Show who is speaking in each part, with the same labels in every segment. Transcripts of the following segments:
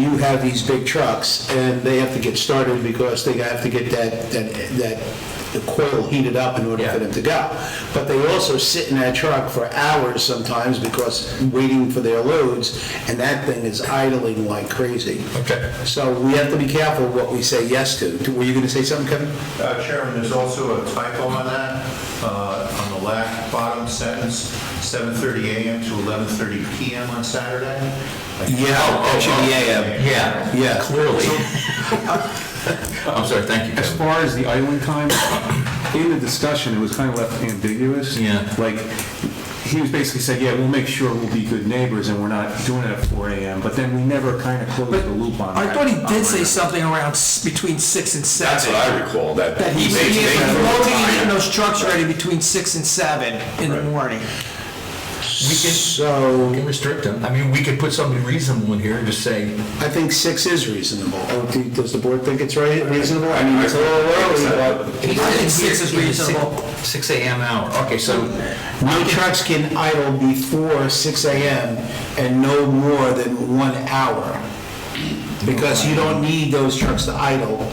Speaker 1: have these big trucks, and they have to get started because they have to get that, that, that coil heated up in order for
Speaker 2: Yeah.
Speaker 1: them to go. But they also sit in that truck for hours sometimes because waiting for their loads, and that thing is idling like crazy.
Speaker 2: Okay.
Speaker 1: So we have to be careful what we say yes to. Were you gonna say something, Kevin?
Speaker 3: Uh, Chairman, there's also a typo on that, uh, on the last bottom sentence, 7:30 a.m. to 11:30 p.m. on Saturday.
Speaker 1: Yeah, that should be AM.
Speaker 2: Yeah,
Speaker 1: Oh, Yeah.
Speaker 2: clearly. I'm sorry, thank you,
Speaker 4: As
Speaker 2: Kevin.
Speaker 4: far as the idling time, in the discussion, it was kind of left ambiguous.
Speaker 2: Yeah.
Speaker 4: Like, he was basically saying, yeah, we'll make sure we'll be good neighbors and we're not doing it at 4 AM, but then we never kind of closed the loop on that.
Speaker 5: I thought he
Speaker 4: on
Speaker 5: did say
Speaker 4: that.
Speaker 5: something around s- between six and seven.
Speaker 6: That's what I recall, that.
Speaker 5: That he's,
Speaker 6: may-
Speaker 5: he's
Speaker 6: may-
Speaker 5: promoting and getting those trucks ready between six and seven in the morning.
Speaker 1: So.
Speaker 2: We can restrict them. I mean, we could put something reasonable in here and just say,
Speaker 1: I think six is reasonable. Oh, do- Does the board think it's right, reasonable? I mean, it's a little early, but
Speaker 5: I think six is reasonable.
Speaker 2: Six AM hour, okay, so,
Speaker 1: no trucks can idle before six AM and no more than one hour. Because you don't need those trucks to idle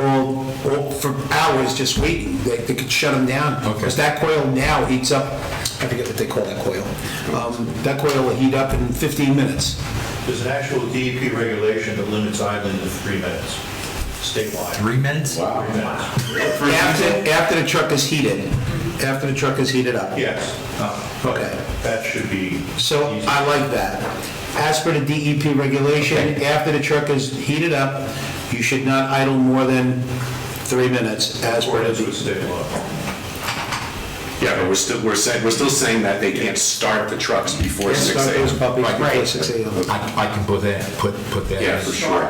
Speaker 1: all, all for hours just waiting. They, they could shut them down.
Speaker 2: Okay.
Speaker 1: Because that coil now heats up, I forget what they call that coil. Um, That coil will heat up in fifteen minutes.
Speaker 3: There's an actual DEP regulation that limits idling to three minutes statewide.
Speaker 2: three minutes?
Speaker 3: Wow. Three minutes.
Speaker 1: After, after the truck is heated, after the truck is heated up.
Speaker 3: Yes. Uh,
Speaker 1: Okay.
Speaker 3: That should be.
Speaker 1: So
Speaker 3: easy.
Speaker 1: I like that. As per the DEP regulation, after the truck is heated up, you should not idle more than three minutes as per
Speaker 3: According to
Speaker 1: the...
Speaker 3: the
Speaker 1: E
Speaker 3: state law.
Speaker 6: Yeah, but we're still, we're saying, we're still saying that they can't start the trucks before
Speaker 1: Can't
Speaker 6: six
Speaker 1: start
Speaker 6: AM.
Speaker 1: those puppies before
Speaker 6: Right.
Speaker 1: 6 a.m..
Speaker 2: I, I can put that, put, put that.
Speaker 6: Yeah, for sure.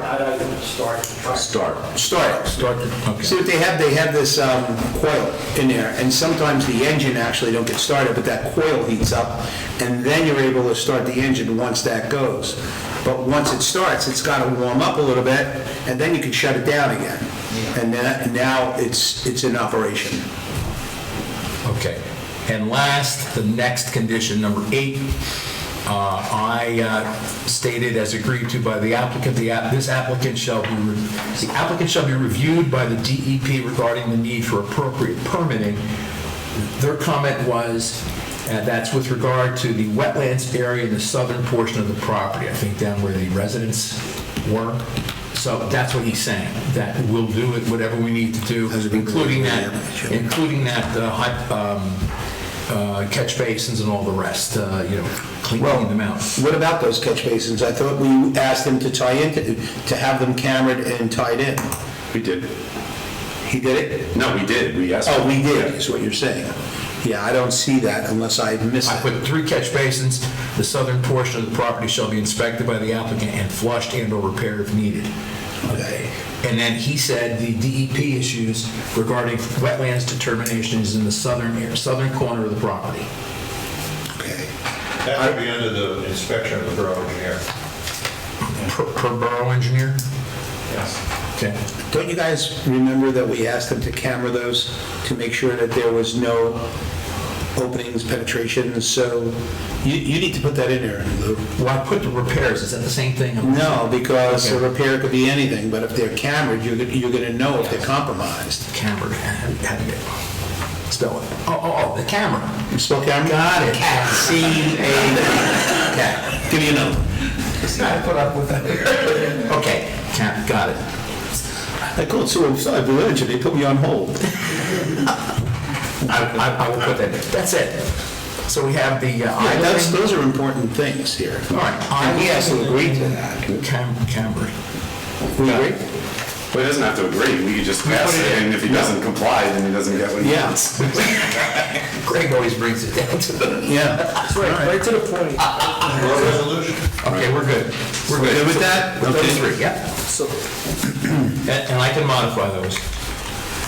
Speaker 6: Start.
Speaker 1: Start.
Speaker 2: Start, the-
Speaker 1: See
Speaker 2: okay.
Speaker 1: what they have, they have this um, coil in there, and sometimes the engine actually don't get started, but that coil heats up, and then you're able to start the engine once that goes. But once it starts, it's got to warm up a little bit, and then you can shut it down again. And that- and now it's, it's in operation.
Speaker 2: Okay. And last, the next condition, number eight, uh, I uh, stated as agreed to by the applicant, the app, this applicant shall be, re- the applicant shall be reviewed by the DEP regarding the need for appropriate permitting. Their comment was, uh, that's with regard to the wetlands area in the southern portion of the property, I think down where the residents were. So that's what he's saying, that we'll do it, whatever we need to do,
Speaker 1: Those would be-
Speaker 2: including that,
Speaker 1: Sure.
Speaker 2: including that uh, hy- um, uh, catch basins and all the rest, uh, you know, cleaning them out.
Speaker 1: What about those catch basins? I thought we asked them to tie in, to have them cambered and tied in.
Speaker 6: We did.
Speaker 1: He did it?
Speaker 6: No, we did, we asked.
Speaker 1: Oh, we did, is what you're saying. Yeah, I don't see that unless I miss
Speaker 2: I
Speaker 1: it.
Speaker 2: put three catch basins, the southern portion of the property shall be inspected by the applicant and flushed and or repaired if needed. Okay. And then he said the DEP issues regarding wetlands determination is in the southern, southern corner of the property.
Speaker 1: Okay.
Speaker 3: That would be under the inspection of the borough engineer.
Speaker 2: Per per borough engineer?
Speaker 3: Yes.
Speaker 2: Okay.
Speaker 1: Don't you guys remember that we asked them to camera those to make sure that there was no openings, penetrations? So you, you need to put that in there, Lou.
Speaker 2: Well, I put the repairs, is that the same thing?
Speaker 1: No, because a
Speaker 2: Okay.
Speaker 1: repair could be anything, but if they're cambered, you're, gonna- you're gonna know if they're compromised.
Speaker 2: Camera, how do you get- spell it? Oh, oh, oh, the camera.
Speaker 1: Spell camera?
Speaker 2: Got it.
Speaker 1: C A.
Speaker 2: Okay.
Speaker 1: Give me a number.
Speaker 2: I put up with that. Okay, Cam- got it.
Speaker 1: I called Sewell Village and they put me on hold.
Speaker 2: I, I, I will put that, in. that's it. So we have the uh,
Speaker 1: Yeah, that's,
Speaker 2: idling.
Speaker 1: those are important things here.
Speaker 2: All right.
Speaker 1: And he has to agree to
Speaker 2: that. Cam, Camry.
Speaker 1: We agree?
Speaker 6: But he doesn't have to agree, we could just
Speaker 2: We put
Speaker 6: pass
Speaker 2: it
Speaker 6: it,
Speaker 2: in.
Speaker 6: and if he doesn't comply, then he doesn't get what he
Speaker 1: Yeah.
Speaker 6: wants.
Speaker 2: Greg always brings it down to the,
Speaker 1: Yeah.
Speaker 5: Right to the point.
Speaker 3: Or resolution.
Speaker 2: okay, we're good. We're
Speaker 1: Good
Speaker 2: good.
Speaker 1: with that?
Speaker 2: With those
Speaker 1: Okay.
Speaker 2: three, yeah. And, and I can modify those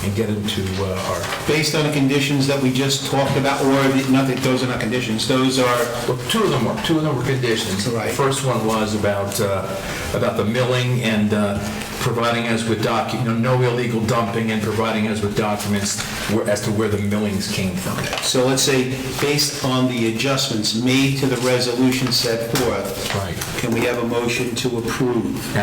Speaker 2: and get into uh, our,
Speaker 1: based on the conditions that we just talked about, or the- not that those are not conditions, those are,
Speaker 2: well, two of them were, two of them were conditions.
Speaker 1: Right.
Speaker 2: The First one was about, uh, about the milling and uh, providing us with docu, you know, no illegal dumping and providing us with documents where- as to where the millings came from.
Speaker 1: so let's say, based on the adjustments made to the resolution set forth.
Speaker 2: Right.
Speaker 1: Can we have a motion to approve?